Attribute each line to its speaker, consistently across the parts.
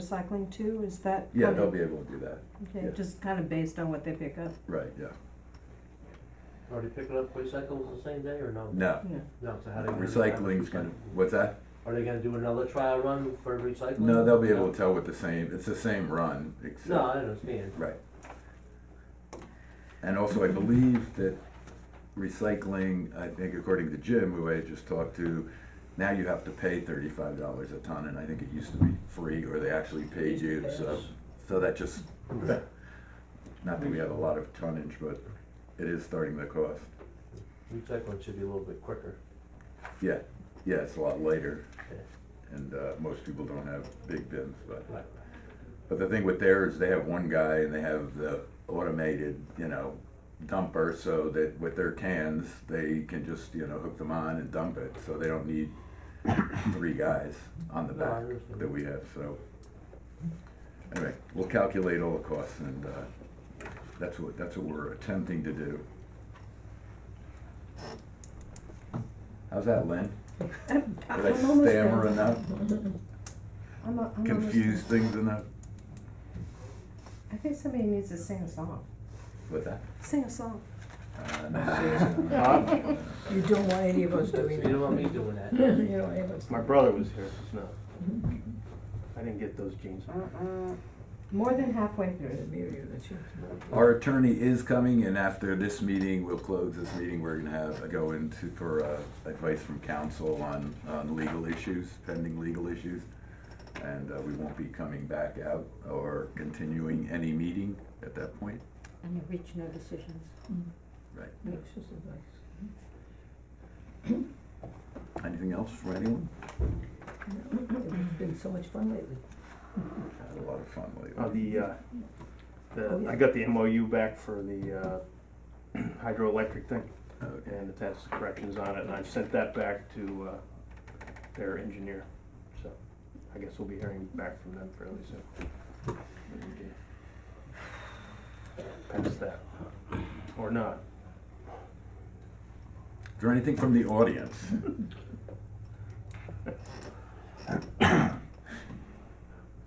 Speaker 1: recycling too, is that?
Speaker 2: Yeah,
Speaker 1: covered?
Speaker 2: they'll be able to do that,
Speaker 1: Okay,
Speaker 2: yeah.
Speaker 1: just kind of based on what they pick up,
Speaker 2: right, yeah,
Speaker 3: Are they picking up recyclables the same day or no?
Speaker 2: no,
Speaker 1: yeah.
Speaker 3: No, so how do they? gonna decide
Speaker 2: recycling's
Speaker 3: recycling?
Speaker 2: gonna, what's that?
Speaker 3: Are they gonna do another trial run for recycling?
Speaker 2: No, they'll be able to tell with the same, it's the same run,
Speaker 3: No,
Speaker 2: except,
Speaker 3: I understand.
Speaker 2: right. And also, I believe that recycling, I think according to Jim, who I just talked to, now you have to pay thirty-five dollars a ton, and I think it used to be free, or they actually paid you, so, so that just,
Speaker 3: Mm-hmm.
Speaker 2: not that we have a lot of tonnage, but it is starting to cost.
Speaker 3: Recycling should be a little bit quicker.
Speaker 2: Yeah, yeah, it's a lot later,
Speaker 3: Okay.
Speaker 2: and, uh, most people don't have big bins, but.
Speaker 3: Right.
Speaker 2: But the thing with theirs, they have one guy and they have the automated, you know, dumper so that with their cans, they can just, you know, hook them on and dump it. So they don't need three guys on the
Speaker 3: No, I
Speaker 2: back
Speaker 3: understand.
Speaker 2: that we have, so. Anyway, we'll calculate all the costs and, uh, that's what, that's what we're attempting to do. How's that, Lynn? Did I
Speaker 1: I'm almost there.
Speaker 2: stammer enough?
Speaker 1: I'm, a- I'm almost there.
Speaker 2: Confuse things enough?
Speaker 1: I think somebody needs to sing a song,
Speaker 2: With that?
Speaker 1: sing a song.
Speaker 2: Uh, no.
Speaker 4: Uh,
Speaker 5: You don't want any of us
Speaker 3: So
Speaker 5: doing
Speaker 3: you
Speaker 5: that.
Speaker 3: don't want me doing that.
Speaker 5: You don't want any of us.
Speaker 4: My brother was here, no. I didn't get those jeans.
Speaker 1: More than halfway through.
Speaker 5: Maybe you're the chief.
Speaker 2: Our attorney is coming, and after this meeting, we'll close this meeting, we're gonna have, go into for uh, advice from counsel on, on legal issues, pending legal issues. And uh, we won't be coming back out or continuing any meeting at that point.
Speaker 6: And you reach no decisions.
Speaker 5: That's just advice.
Speaker 2: Anything else for anyone?
Speaker 5: It's been so much fun lately.
Speaker 2: Had a lot of fun
Speaker 4: Uh,
Speaker 2: lately.
Speaker 4: the, uh,
Speaker 5: Oh,
Speaker 4: the,
Speaker 5: yeah.
Speaker 4: I got the MOU back for the, uh, hydroelectric thing
Speaker 2: Okay,
Speaker 4: and attached corrections on it. And I've sent that back to, uh, their engineer. So I guess we'll be hearing back from them fairly soon. Maybe we can Pass that, or not.
Speaker 2: Is there anything from the audience?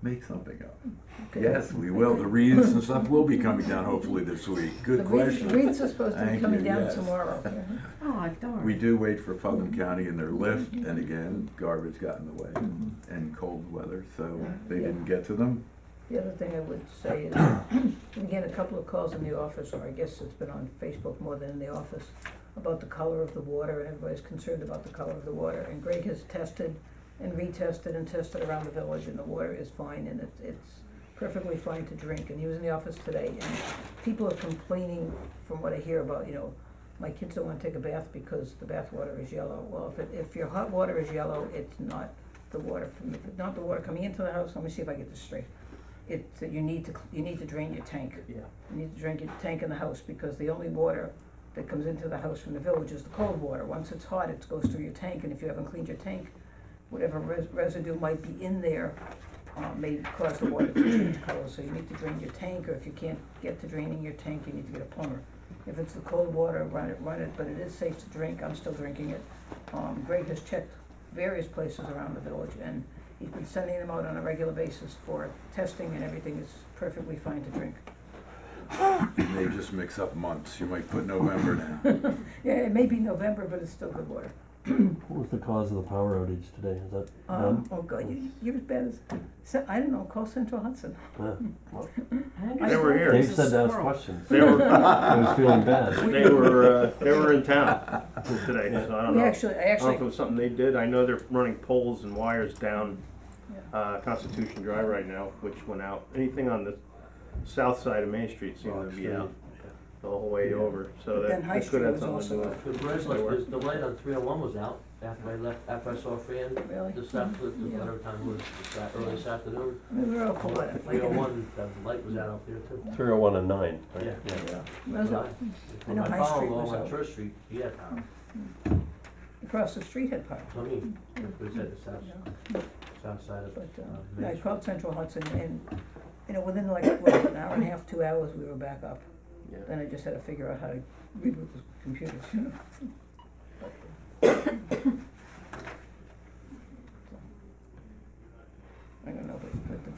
Speaker 2: Make something up.
Speaker 5: Okay.
Speaker 2: Yes, we will. The readings and stuff will be coming down hopefully this week. Good question.
Speaker 5: The wreaths are supposed to be
Speaker 2: Thank
Speaker 5: coming
Speaker 2: you,
Speaker 5: down
Speaker 2: yes.
Speaker 5: tomorrow.
Speaker 1: Oh, darn.
Speaker 2: We do wait for Putnam County in their lift, and again, garbage got in the way and cold weather, so they didn't get to them.
Speaker 5: The other thing I would say is, and again, a couple of calls in the office, or I guess it's been on Facebook more than in the office, about the color of the water, and everybody's concerned about the color of the water. And Greg has tested and retested and tested around the village, and the water is fine, and it's, it's perfectly fine to drink. And he was in the office today, and people are complaining, from what I hear about, you know, my kids don't wanna take a bath because the bath water is yellow. Well, if it, if your hot water is yellow, it's not the water from, if it's not the water coming into the house, let me see if I get this straight. It's, that you need to, cl- you need to drain your tank.
Speaker 4: Yeah.
Speaker 5: You need to drink your tank in the house, because the only water that comes into the house from the village is the cold water. Once it's hot, it goes through your tank, and if you haven't cleaned your tank, whatever res- residue might be in there, uh, may cause the water to change color, so you need to drain your tank, or if you can't get to draining your tank, you need to get a plumber. If it's the cold water, run it, run it, but it is safe to drink, I'm still drinking it. Um, Greg has checked various places around the village, and he's been sending them out on a regular basis for testing, and everything is perfectly fine to drink.
Speaker 2: They just mix up months. You might put November now.
Speaker 5: Yeah, it may be November, but it's still good water.
Speaker 7: What was the cause of the power outage today? Is that
Speaker 5: Um, oh god, you, you're as bad as, so, I don't know, call Central Hudson.
Speaker 7: them?
Speaker 4: They were
Speaker 7: Yeah.
Speaker 4: here.
Speaker 7: uh, Dave said to ask
Speaker 1: squirrel.
Speaker 7: questions.
Speaker 4: They were,
Speaker 7: I was feeling bad.
Speaker 4: they were, uh, they were in town today, so I don't
Speaker 5: We
Speaker 4: know.
Speaker 5: actually, I
Speaker 4: I don't know if it
Speaker 5: actually,
Speaker 4: was something they did. I know they're running poles and wires down
Speaker 5: Yeah.
Speaker 4: uh, Constitution Drive right now, which went out. Anything on the south side of Main Street seemed to be out the whole way over, so
Speaker 5: But
Speaker 4: that
Speaker 5: then High
Speaker 4: that could
Speaker 5: Street
Speaker 4: have
Speaker 5: was
Speaker 4: something to
Speaker 5: also,
Speaker 4: do.
Speaker 3: The bridge, like, the- the light on three oh one was out after I left, after I saw Fran
Speaker 5: really,
Speaker 3: this after,
Speaker 5: Yeah.
Speaker 3: whatever time it was, this a- early this afternoon.
Speaker 5: I mean, we were all full of it,
Speaker 3: Three
Speaker 5: like,
Speaker 3: oh
Speaker 5: I mean,
Speaker 3: one, the light was out up there too.
Speaker 7: Three oh one and nine, right?
Speaker 3: Yeah.
Speaker 5: it was
Speaker 3: When
Speaker 5: all-
Speaker 3: I-
Speaker 5: know
Speaker 3: When
Speaker 5: High
Speaker 3: I followed
Speaker 5: Street
Speaker 3: along
Speaker 5: was
Speaker 3: on
Speaker 5: out.
Speaker 3: Church Street, he had power.
Speaker 5: across the street had power,
Speaker 3: I mean, it was at the south,
Speaker 5: you know.
Speaker 3: south side of,
Speaker 5: But,
Speaker 3: Uh,
Speaker 5: um,
Speaker 3: Main
Speaker 5: I
Speaker 3: Street.
Speaker 5: called Central Hudson and, you know, within like, what, an hour and a half, two hours, we were back up.
Speaker 4: Yeah.
Speaker 5: Then I just had to figure out how to reboot the computers, you know. uh,